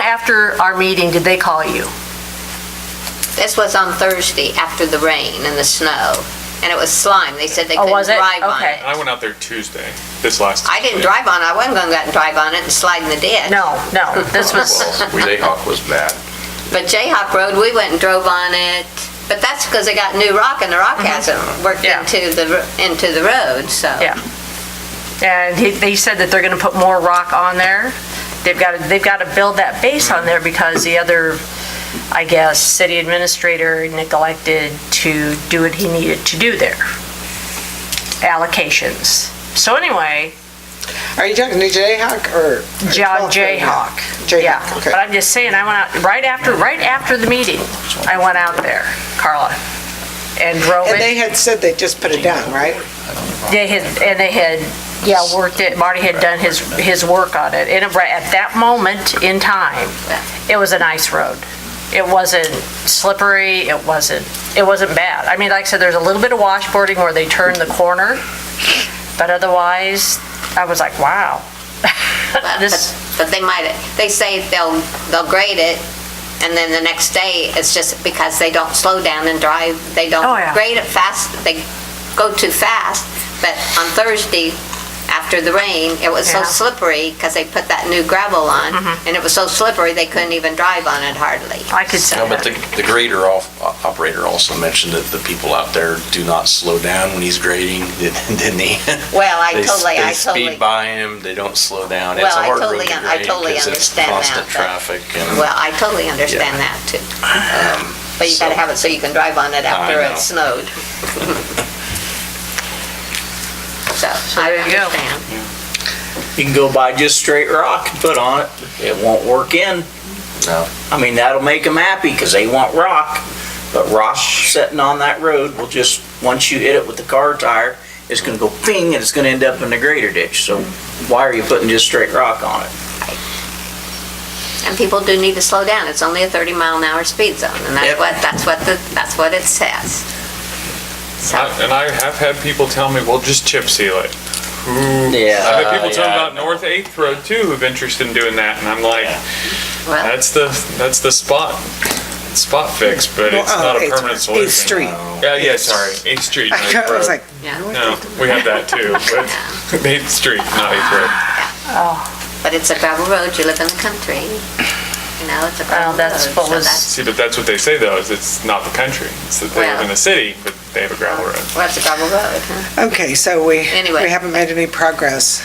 after our meeting did they call you? This was on Thursday after the rain and the snow, and it was slime. They said they Oh, couldn't was it? drive on Okay. it. I went out there Tuesday, this last. I didn't Tuesday. drive on it. I wasn't gonna go out and drive on it and slide in the ditch. No, no, this was, Well, Jayhawk was bad. But Jayhawk Road, we went and drove on it, but that's because they got new rock and the rock hasn't worked Mm-hmm. Yeah. into the, r- into the road, so. yeah. And he- they said that they're going to put more rock on there. They've got, to they've got to build that base on there because the other, I guess, city administrator neglected to do what he needed to do there. Allocations. So anyway, Are you talking to Jayhawk or? Oh, John Jayhawk. Yeah, Jayhawk, But okay. I'm just saying, I went out, right after, right after the meeting, I went out there, Carla, and drove And they it. had said they just put it down, right? They had, and they had, yeah, worked it, Marty had done his, his work on it. And it- right at that moment in time, it was a nice road. It wasn't slippery, it wasn't, it wasn't bad. I mean, like I said, there's a little bit of washboarding where they turn the corner, but otherwise, I was like, wow. This- But but they might, they say they'll, they'll grade it, and then the next day, it's just because they don't slow down and drive, they don't Oh, yeah. grade it fast, they go too fast. But on Thursday, after the rain, it was so Yeah. Mm-hmm. slippery, because they put that new gravel on, and it was so slippery, they couldn't even drive on it hardly. I could see No, but that. the, the grader al- operator also mentioned that the people out there do not slow down when he's grading, didn't he? Well, I They s- totally, I They totally, speed by him, they don't slow down. It's Well, a I hard road totally to un- I grade totally 'cause it's understand that, constant but- traffic and, well, I totally understand that, too. But you gotta so- have it so you can drive on it after know. it snowed. So, I there you go. understand. You can go buy just straight rock and put on it. It won't work in. no. I mean, that'll make them happy because they want rock. But rock sitting on that road will just, once you hit it with the car tire, it's gonna go ping and it's gonna end up in the grader ditch. So why are you putting just straight rock on it? And people do need to slow down. It's only a 30 mile an hour speed zone, and that's Yep. what, that's what, the that's what it says. So, I- And I have had people tell me, well, just chip seal it. Who- Yeah. I've had people Uh, tell me yeah, about I know. North Eighth Road too, who've interested in doing that, and I'm like, well, that's the, that's the spot, spot fix, but it's Well, not oh, a permanent solution. Eighth Street. Yeah, yeah, sorry, Eighth Street. not Eighth I was Road. like, yeah, No, we have that too, but Eighth Street, not Eighth Road. but it's a gravel road. You live in the country, you know, it's a Well, gravel road. that's what so was- that's- See, but that's what they say though, is it's not the country. It's that they live in the city, but they have a gravel road. Well, it's a gravel road, huh? okay, so we, Anyway. we haven't made any progress.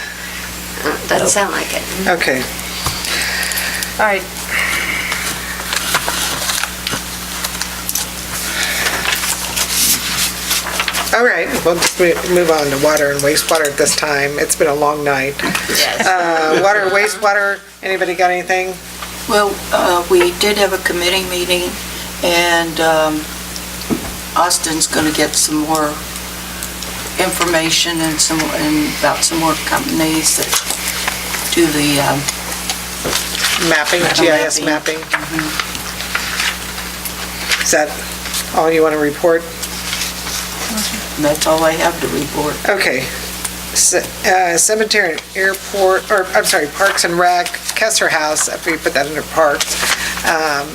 Doesn't sound like it. Okay. All right, All right, we'll just mo- move on to water and wastewater at this time. It's been a long night. Yes. Uh, Water, and wastewater, anybody got anything? Well, uh, we did have a committee meeting, and um, Austin's going to get some more information and some, and about some more companies that do the, um, Mapping, GIS mapping? Mapping. Is that all you want to report? that's all I have to report. Okay. C- uh, Cemetery, and airport, or, I'm sorry, Parks and Rec, Kessler House, after you put that under Parks. um,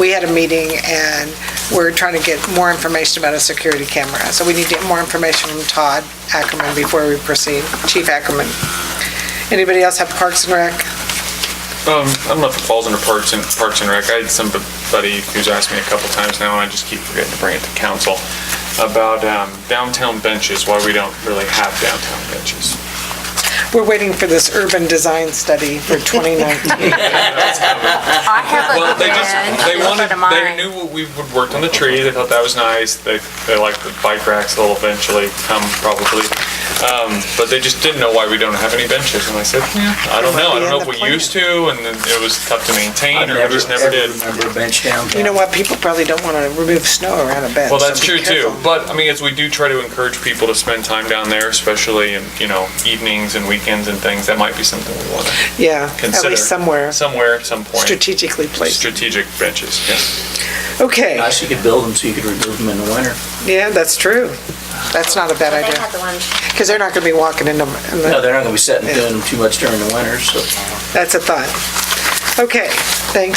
We had a meeting and we're trying to get more information about a security camera. So we need to get more information from Todd Ackerman before we proceed, Chief Ackerman. Anybody else have Parks and Rec? Um, I don't know if it falls under Parks and, Parks and Rec. I had somebody who's asked me a couple times now, and I just keep forgetting to bring it to council, about um, downtown benches, why we don't really have downtown benches. We're waiting for this urban design study for 2019. I have Well, a they just, they plan, wanted, look at they mine. knew we would worked on the tree, they thought that was nice, they, they liked the bike racks, they'll eventually come probably. Um, but they just didn't know why we don't have any benches, and I said, "Yeah, I don't know, I don't know if we used to, and then it was tough to maintain, I or we just never did. Remember a bench down. You know what, people probably don't want to remove snow around a bed. Well, so that's be true too, careful. but I mean, as we do try to encourage people to spend time down there, especially in, you know, evenings and weekends and things, that might be something we want to Yeah, at consider. least somewhere Somewhere, at some point. strategically placed. Strategic benches, yeah. Okay. Nice, you could build them so you could remove them in the winter. Yeah, that's true. That's not a bad They idea, had the ones because they're not going to be walking into, in the- No, they're not gonna be sitting doing them too much during the winter, so. that's a thought. Okay, thanks.